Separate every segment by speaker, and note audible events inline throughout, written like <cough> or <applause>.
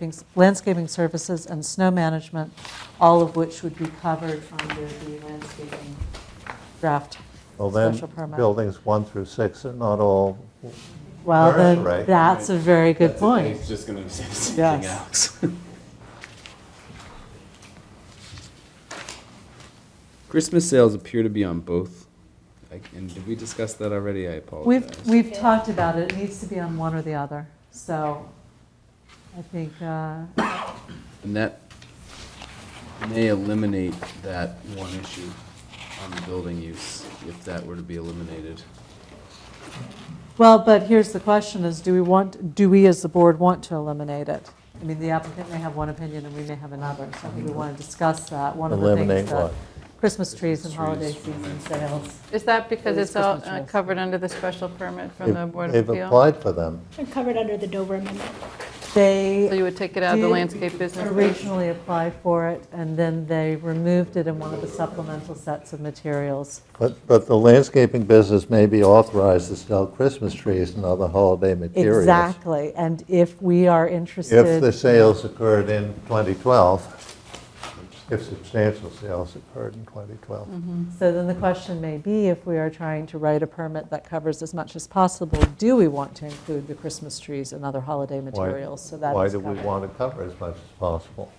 Speaker 1: landscaping- landscaping services, and snow management, all of which would be covered under the landscaping draft
Speaker 2: Well,
Speaker 1: special
Speaker 2: then,
Speaker 1: permit.
Speaker 2: buildings one through six are not all,
Speaker 1: Well, then,
Speaker 2: Right.
Speaker 1: that's a very good
Speaker 3: That's the thing,
Speaker 1: point.
Speaker 3: It's just going to be the same
Speaker 1: Yes.
Speaker 3: thing, Alex. <laughs> Christmas sales appear to be on both. Like, And did we discuss that already? I
Speaker 1: We've,
Speaker 3: apologize.
Speaker 1: we've talked about it, it needs to be on one or the other, so I think, uh,
Speaker 3: And that may eliminate that one issue on the building use, if that were to be eliminated.
Speaker 1: well, but here's the question is, do we want, do we as the board want to eliminate it? I mean, the applicant may have one opinion and we may have another, so I think we want to discuss that. One of the
Speaker 2: eliminate
Speaker 1: things that
Speaker 2: what?
Speaker 1: Christmas trees and
Speaker 3: Christmas
Speaker 1: holiday
Speaker 3: trees,
Speaker 1: season
Speaker 3: right.
Speaker 1: sales.
Speaker 4: Is that because
Speaker 1: It is
Speaker 4: it's all
Speaker 1: Christmas
Speaker 4: uh,
Speaker 1: trees.
Speaker 4: covered under the special permit from the Board of
Speaker 2: They've
Speaker 4: Appeal?
Speaker 2: applied for them.
Speaker 5: They're covered under the Dover Amendment.
Speaker 4: So you
Speaker 1: They
Speaker 4: would take it out of the
Speaker 1: Did
Speaker 4: landscape business? plan?
Speaker 1: originally applied for it, and then they removed it in one of the supplemental sets of materials.
Speaker 2: But, but the landscaping business may be authorized to sell Christmas trees and other holiday materials.
Speaker 1: Exactly, and if we are interested.
Speaker 2: If the sales occurred in 2012, if substantial sales occurred in 2012.
Speaker 1: So then the question may be, if we are trying to write a permit that covers as much as possible, do we want to include the Christmas trees and other holiday
Speaker 2: Why-
Speaker 1: materials? So that
Speaker 2: Why
Speaker 1: is
Speaker 2: do we
Speaker 1: covered.
Speaker 2: want to cover as much as possible?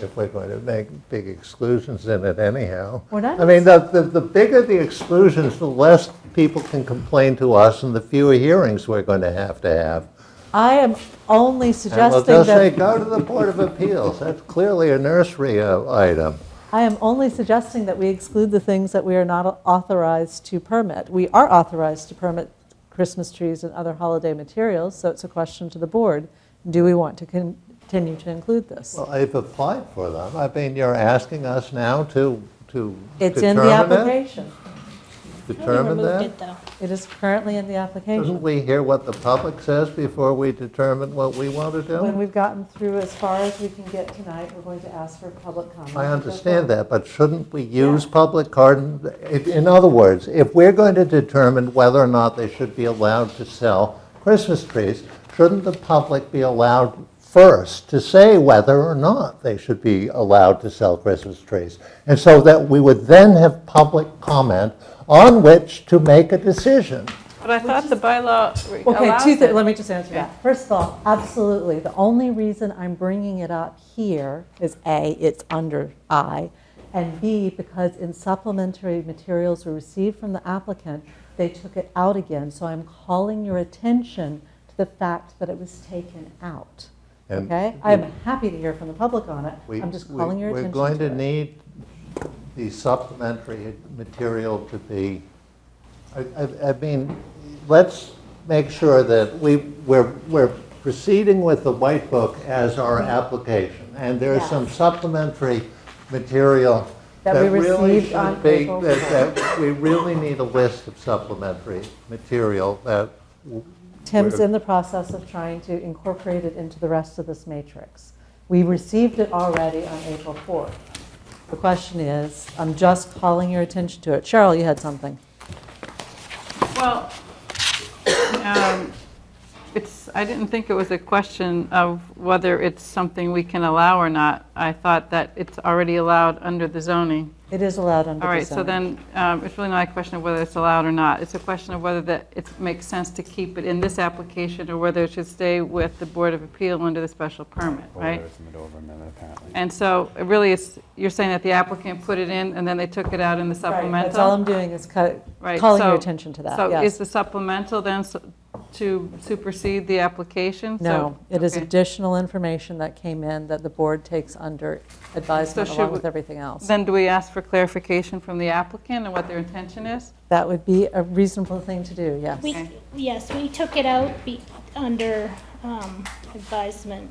Speaker 2: If we're going to make big exclusions in it anyhow.
Speaker 1: We're not-
Speaker 2: I mean, the, the- the bigger the exclusions, the less people can complain to us and the fewer hearings we're going to have to have.
Speaker 1: I am only
Speaker 2: And we'll
Speaker 1: suggesting
Speaker 2: just say,
Speaker 1: that,
Speaker 2: go to the Board of Appeals. That's clearly a nursery uh, item.
Speaker 1: I am only suggesting that we exclude the things that we are not authorized to permit. We are authorized to permit Christmas trees and other holiday materials, so it's a question to the board. Do we want to con- continue to include this?
Speaker 2: Well, I've applied for them. I mean, you're asking us now to, to
Speaker 1: It's in the
Speaker 2: determine it?
Speaker 1: application.
Speaker 2: Determine
Speaker 5: We removed
Speaker 2: that?
Speaker 5: it, though.
Speaker 1: It is currently in the application.
Speaker 2: Doesn't we hear what the public says before we determine what we want to
Speaker 1: When
Speaker 2: do?
Speaker 1: we've gotten through as far as we can get tonight, we're going to ask for public comment.
Speaker 2: I understand that, but shouldn't we use public garden? In in other words, if we're going to determine whether or not they should be allowed to sell Christmas trees, shouldn't the public be allowed first to say whether or not they should be allowed to sell Christmas trees? And so that we would then have public comment on which to make a decision.
Speaker 4: But I thought the bylaw re-
Speaker 1: Okay,
Speaker 4: allows
Speaker 1: two, thi- let
Speaker 4: it.
Speaker 1: me just answer that. First of all, absolutely, the only reason I'm bringing it up here is A, it's under I, and B, because in supplementary materials we received from the applicant, they took it out again, so I'm calling your attention to the fact that it was taken out,
Speaker 2: And
Speaker 1: okay? I'm happy to hear from the public on it,
Speaker 2: We-
Speaker 1: I'm just
Speaker 2: we-
Speaker 1: calling your attention
Speaker 2: We're going
Speaker 1: to
Speaker 2: to
Speaker 1: it.
Speaker 2: need the supplementary material to be, I, I- I mean, let's make sure that we, we're, we're proceeding with the white book as our
Speaker 1: Mm-hmm.
Speaker 2: application. And there is
Speaker 1: Yes.
Speaker 2: some supplementary material
Speaker 1: That
Speaker 2: that
Speaker 1: we
Speaker 2: really
Speaker 1: received on
Speaker 2: should be,
Speaker 1: April
Speaker 2: that, that we really need a list of supplementary material that w-
Speaker 1: Tim's
Speaker 2: Where-
Speaker 1: in the process of trying to incorporate it into the rest of this matrix. We received it already on April 4th. The question is, I'm just calling your attention to it. Cheryl, you had something.
Speaker 4: Well, um, it's, I didn't think it was a question of whether it's something we can allow or not. I thought that it's already allowed under the zoning.
Speaker 1: It is allowed under the
Speaker 4: All right, so
Speaker 1: zoning.
Speaker 4: then, um, it's really not a question of whether it's allowed or not. It's a question of whether that, it makes sense to keep it in this application or whether it should stay with the Board of Appeal under the special permit, right?
Speaker 3: Or it's a Dover amendment, apparently.
Speaker 4: And so, it really, it's, you're saying that the applicant put it in and then they took it out in the
Speaker 1: Right,
Speaker 4: supplemental?
Speaker 1: That's all I'm doing is ca-
Speaker 4: Right,
Speaker 1: calling your
Speaker 4: so-
Speaker 1: attention to that,
Speaker 4: So is
Speaker 1: yes.
Speaker 4: the supplemental then s- to supersede the application? So-
Speaker 1: No, it is
Speaker 4: okay.
Speaker 1: additional information that came in that the board takes under advisement
Speaker 4: should
Speaker 1: along
Speaker 4: we-
Speaker 1: with everything else.
Speaker 4: Then do we ask for clarification from the applicant and what their intention is?
Speaker 1: That would be a reasonable thing to do, yes.
Speaker 5: We,
Speaker 4: Okay.
Speaker 5: yes, we took it out be, under, um, advisement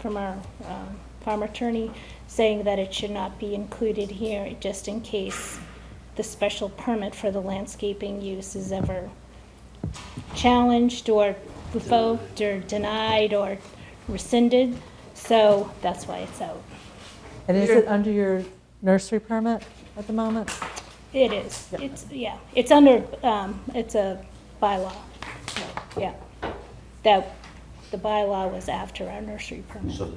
Speaker 5: from our, um, farm attorney, saying that it should not be included here, just in case the special permit for the landscaping use is ever challenged or revoked or denied or rescinded, so that's why it's out.
Speaker 1: And is it under your nursery permit at the moment?
Speaker 5: It is, it's, yeah, it's under, um, it's a bylaw, yeah, that the bylaw was after our nursery permit.
Speaker 6: So the